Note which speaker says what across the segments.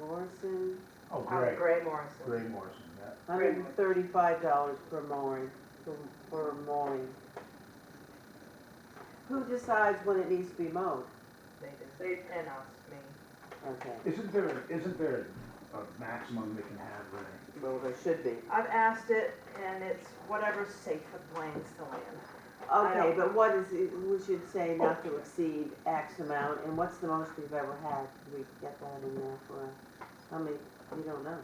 Speaker 1: Morrison,
Speaker 2: Oh,
Speaker 3: Howard
Speaker 2: great.
Speaker 3: Gray Morrison.
Speaker 2: Gray Morrison, yeah.
Speaker 1: hundred and thirty-five dollars per mowing, for- for mowing. Who decides when it needs to be mowed?
Speaker 3: They did, they, and us, me.
Speaker 1: Okay,
Speaker 2: Isn't there, isn't there a maximum they can have there?
Speaker 1: well, there should be.
Speaker 3: I've asked it and it's whatever's safe with Blaine's to land.
Speaker 1: Okay,
Speaker 3: don't-
Speaker 1: but what is, it- we should say not to exceed X amount, and what's the most we've ever had? Can we get that in there for, how many, you don't know.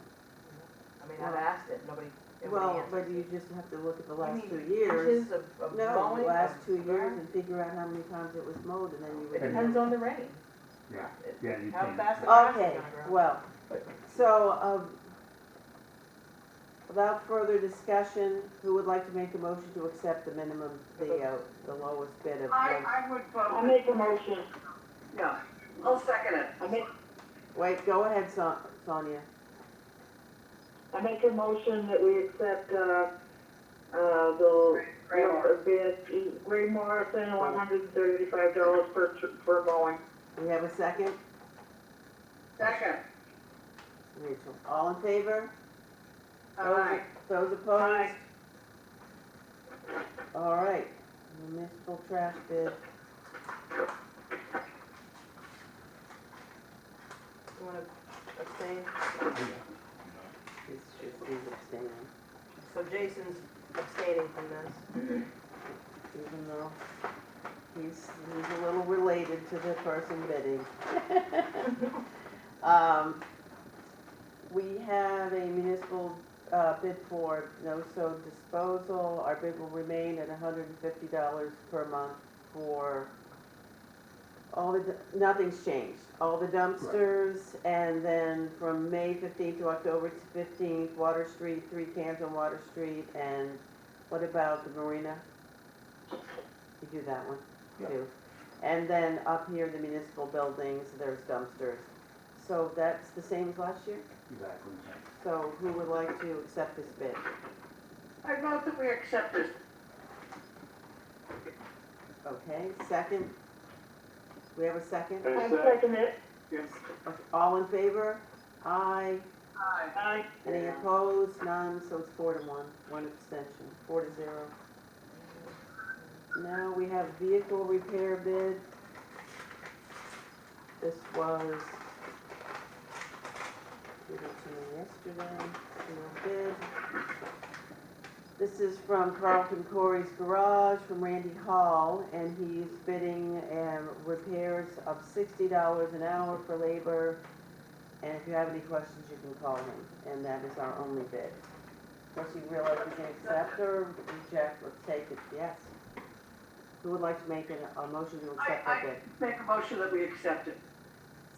Speaker 3: I mean, I've asked it, nobody, nobody
Speaker 1: Well,
Speaker 3: answered.
Speaker 1: but you just have to look at the last
Speaker 3: mean
Speaker 1: two years.
Speaker 3: Inches of, of
Speaker 1: No,
Speaker 3: mowing.
Speaker 1: the last
Speaker 3: of
Speaker 1: two years
Speaker 3: grass.
Speaker 1: and figure out how many times it was mowed, and then you
Speaker 3: It
Speaker 1: would.
Speaker 3: depends on the rain.
Speaker 2: Yeah,
Speaker 3: It-
Speaker 2: yeah, you
Speaker 3: How
Speaker 2: can.
Speaker 3: fast the grass is
Speaker 1: Okay,
Speaker 3: gonna grow.
Speaker 1: well, so, um, without further discussion, who would like to make a motion to accept the minimum, the, uh, the lowest bid of?
Speaker 4: I, I would
Speaker 5: I
Speaker 4: vote,
Speaker 5: make a motion,
Speaker 4: no, I'll second it.
Speaker 5: I make,
Speaker 1: Wait, go ahead, Son- Sonia.
Speaker 5: I make a motion that we accept, uh, uh, the,
Speaker 4: Gray Morrison.
Speaker 5: bid, Gray Morrison, one hundred and thirty-five dollars per, tr- per mowing.
Speaker 1: We have a second?
Speaker 4: Second,
Speaker 1: Rachel, all in favor?
Speaker 4: aye.
Speaker 1: Those opposed? All right, municipal trash bid.
Speaker 3: You wanna abstain?
Speaker 1: It's just, he's abstaining,
Speaker 3: So Jason's abstaining from this.
Speaker 1: even though he's, he's a little related to the person bidding. Um, we have a municipal, uh, bid for no-so disposal. Our bid will remain at hundred and fifty dollars per month for all the, d- nothing's changed. All the dumpsters, and then from May fifteenth to October fifteenth, Water Street, three cans on Water Street, and what about the marina? You do that one,
Speaker 2: Yeah.
Speaker 1: too. And then up here, the municipal buildings, there's dumpsters. So that's the same as last year?
Speaker 2: Exactly.
Speaker 1: So who would like to accept this bid?
Speaker 4: I vote that we accept this.
Speaker 1: Okay, second? We have a second?
Speaker 5: I second it,
Speaker 1: Okay, All in favor? Aye.
Speaker 4: Aye.
Speaker 5: I,
Speaker 1: Any opposed? None, so it's four to one, one abstention, four to zero. Now we have vehicle repair bid. This was given to me yesterday, you know, bid. This is from Carlton Corey's Garage, from Randy Hall, and he's bidding um, repairs of sixty dollars an hour for labor, and if you have any questions, you can call him, and that is our only bid. Of course, you realize we can accept or reject, let's take it, yes. Who would like to make an- a motion to accept that bid?
Speaker 4: Make a motion that we accept it.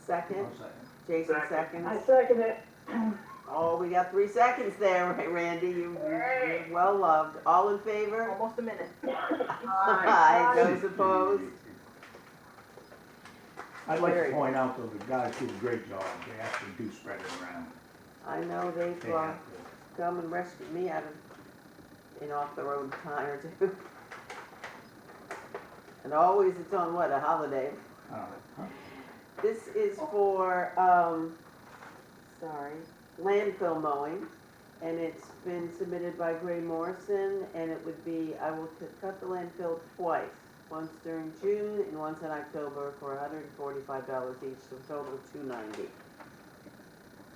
Speaker 1: Second,
Speaker 2: One second.
Speaker 1: Jason
Speaker 4: Second.
Speaker 5: I
Speaker 1: seconds.
Speaker 5: second it,
Speaker 1: Oh, we got three seconds there, right, Randy, you,
Speaker 4: Hey.
Speaker 1: you're well loved. All in favor?
Speaker 3: Almost a minute.
Speaker 4: Aye.
Speaker 1: Aye, those opposed?
Speaker 2: I'd like to
Speaker 1: Very.
Speaker 2: point out though, the guys do a great job. They actually do spread it around.
Speaker 1: I know
Speaker 2: They
Speaker 1: they've uh,
Speaker 2: have to.
Speaker 1: come and rescued me out of an off-the-road time or two. And always it's on what, a holiday?
Speaker 2: Uh,
Speaker 1: This is for, um, sorry, landfill mowing, and it's been submitted by Gray Morrison, and it would be, I will c- cut the landfill twice, once during June and once in October for hundred and forty-five dollars each, so total two ninety.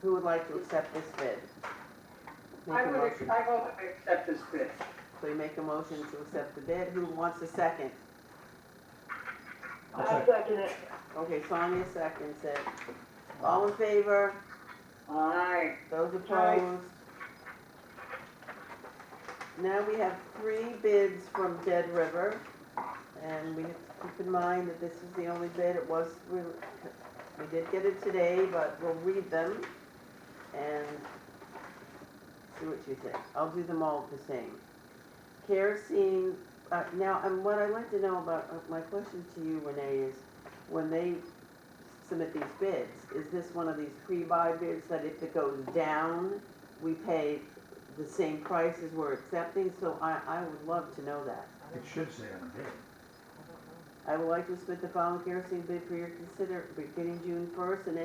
Speaker 1: Who would like to accept this bid? Make
Speaker 4: I
Speaker 1: a
Speaker 4: would,
Speaker 1: motion.
Speaker 4: I vote that we accept this bid.
Speaker 1: So you make a motion to accept the bid, who wants a second?
Speaker 2: I'll
Speaker 5: I
Speaker 2: second.
Speaker 5: second it,
Speaker 1: Okay, Sonia seconds it. All in favor?
Speaker 4: Aye.
Speaker 1: Those
Speaker 5: Aye.
Speaker 1: opposed? Now we have three bids from Dead River, and we have to keep in mind that this is the only bid, it was, we, we did get it today, but we'll read them and see what you think. I'll do them all the same. Kerosene, uh, now, and what I'd like to know about, uh, my question to you, Renee, is when they submit these bids, is this one of these pre-buy bids that if it goes down, we pay the same price as we're accepting? So I, I would love to know that.
Speaker 2: It should say on the bid.
Speaker 1: I would like to submit the following kerosene bid for your consider, beginning June first and ending